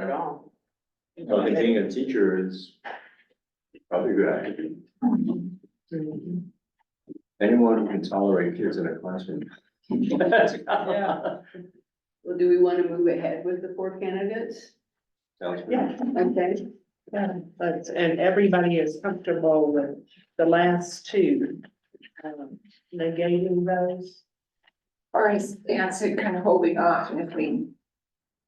No, Oh, I think being a teacher is probably a good idea. Anyone who can tolerate kids in a classroom. Yeah. Well, do we want to move ahead with the four candidates? Sounds good. Yeah, Okay, yeah, but, and everybody is comfortable with the last two. um, Negating those. Or is Nancy kind of holding off and if we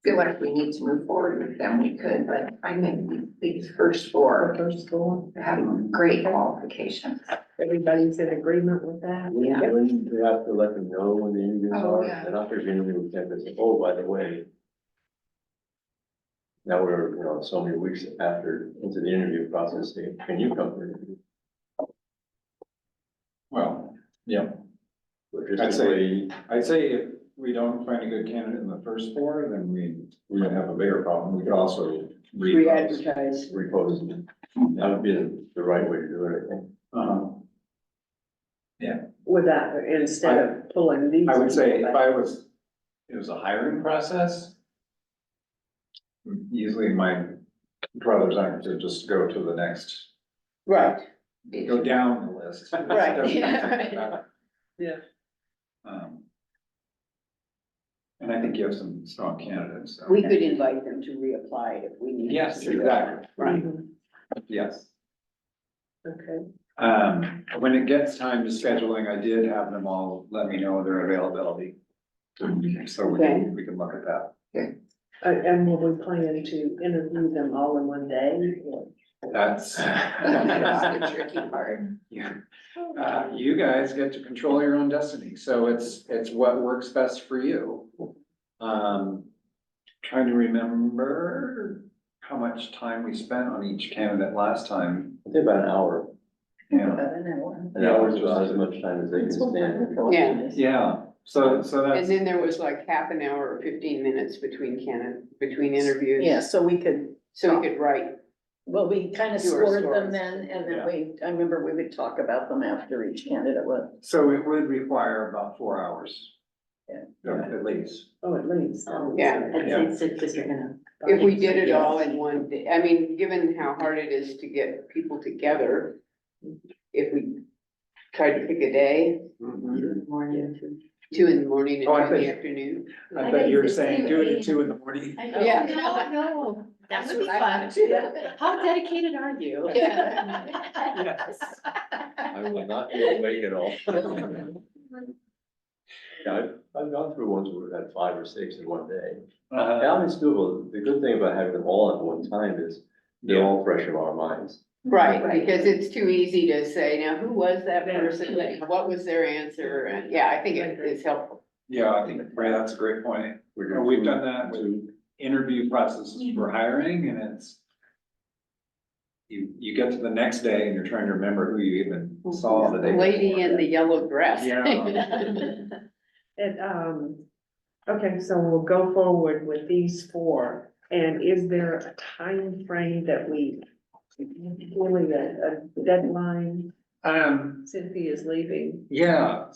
feel like we need to move forward with them, we could, but I think these first Our four first four. have great qualifications. Everybody's in agreement with that. We Yeah. we have to let them know when the interviews Oh, are, yeah. and after the interview, we can say, oh, by the way. Now we're, you know, so many weeks after, into the interview process, say, can you come for an interview? Well, yeah, Or just I'd say- employee, I'd say if we don't find a good candidate in the first four, then we, we might have a bigger problem. We could also repost. re-advertise. repose, that would be the- the right way to do it, I think. Uh-huh. With that, instead of pulling these. I would say people if back. I was, it was a hiring process. Usually my brothers aren't to just go to the next, Right, go down the list. Right. Yeah, yeah. Um, And I think you have some strong candidates, so. We could invite them to reapply if we need. to. Yes, exactly, Right. yes. Mhm, Okay, Um, when it gets time to scheduling, I did have them all let me know their availability. So we Okay. can, we can look at that. and, Uh, and will we plan to interview them all in one day? or- That's. That's the tricky part. Yeah. Uh, you guys get to control your own destiny, so it's, it's what works best for you. Um, trying to remember how much time we spent on each candidate last time, I'd say about an hour, Yeah. an hour is about as much time as they can stand. Yeah, Yeah, so, so and that's, then there was like half an hour or fifteen minutes between canon, between interviews. Yeah, so we could, So we could write, well, we kind of Do our scored scores. them then, and then Yeah. we, I remember we would talk about them after each candidate was. so it would require about four hours. Yeah. At least. Oh, at least. Yeah. Yeah. if we did it all in one day, I mean, given how hard it is to get people together, if we tried to pick a day, Mm-hmm. two in the morning Oh, I and two in the think- afternoon. I thought you were saying do it at two in the morning. Oh. Yeah. No, no, that That's would be what fun. I would do. How dedicated are you? Yes. I will not be awake at all. Yeah, I've, I've gone through ones where we've had five or six in one day. Uh, Now it's doable. The good thing about having them all at one time is they're all fresh in our minds. Right, Right. because it's too easy to say, now, who was that Yeah. person, Like, what was their answer, and, yeah, I think it is helpful. Yeah, I think, Ray, that's a great point. We're Well, doing Oh, we've two- done that with two- interview processes for hiring and it's. You, you get to the next day and you're trying to remember who you even saw the The day. lady before. in the yellow dress. Yeah. And, um, okay, so we'll go forward with these four, and is there a time frame that we, really a, a deadline, Um, Cynthia's leaving? yeah,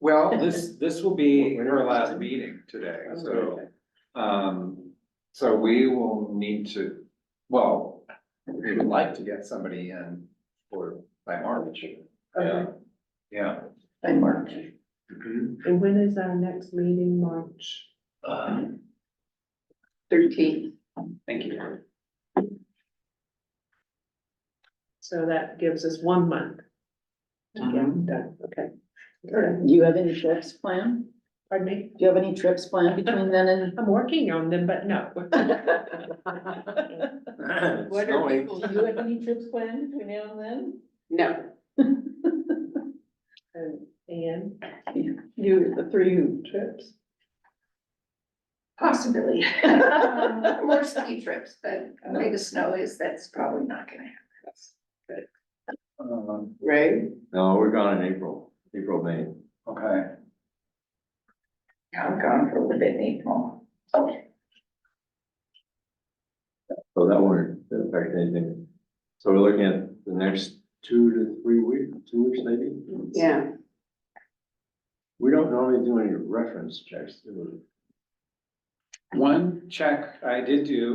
well, this, this will be her last meeting today, so, um, so we will need to, well, we would like to get somebody in for, by March. Okay. Yeah. By March. Mm-hmm. And when is our next meeting, March? Um, Thirteen, Thank you. So that gives us one month. to Mm-hmm. get Mhm. done. Okay, Do you have any trips planned? pardon me, Do you have any trips planned between then and? I'm working on them, but no. what are Snowing. people, you have any trips planned between now and then? no, And- And, You, the three who trips? Possibly. Um, More More ski trips, but the way the snow is, that's probably not gonna happen. Um, right? No, we're gone in April, April, May. okay. I'm gone for a little bit in April. So that won't affect anything. So we're looking at the next two to three weeks, two weeks maybe? Yeah, We don't normally do any reference checks, do we? One check I did do